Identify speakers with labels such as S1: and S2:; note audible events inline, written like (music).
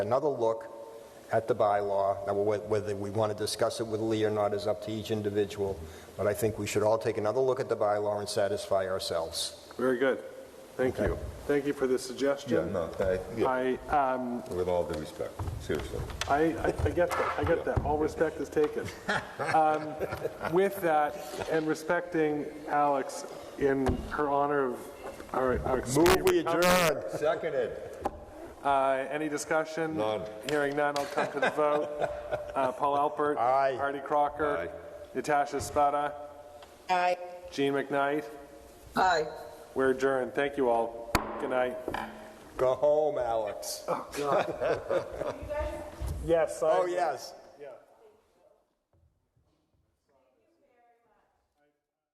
S1: another look at the bylaw. Now, wh- whether we want to discuss it with Lee or not is up to each individual, but I think we should all take another look at the bylaw and satisfy ourselves.
S2: Very good. Thank you. Thank you for the
S3: Yeah,
S2: suggestion.
S3: no, I, yeah,
S2: I, um,
S3: with all due respect, seriously.
S2: I, I- I get that, I get that. All respect is
S3: (laughs)
S2: taken. Um, With that, and respecting Alex in her honor of our, our.
S3: Seconded.
S2: Uh, Any discussion?
S3: None.
S2: Hearing none, I'll come to the
S3: (laughs)
S2: vote. Uh, Paul Alpert.
S1: Aye.
S2: Artie Crocker.
S3: Aye.
S2: Natasha Spada.
S4: Aye.
S2: Gene McKnight.
S4: Aye.
S2: We're adjourned. Thank you all. Good night.
S1: Go home, Alex.
S2: Yes,
S1: Oh, yes.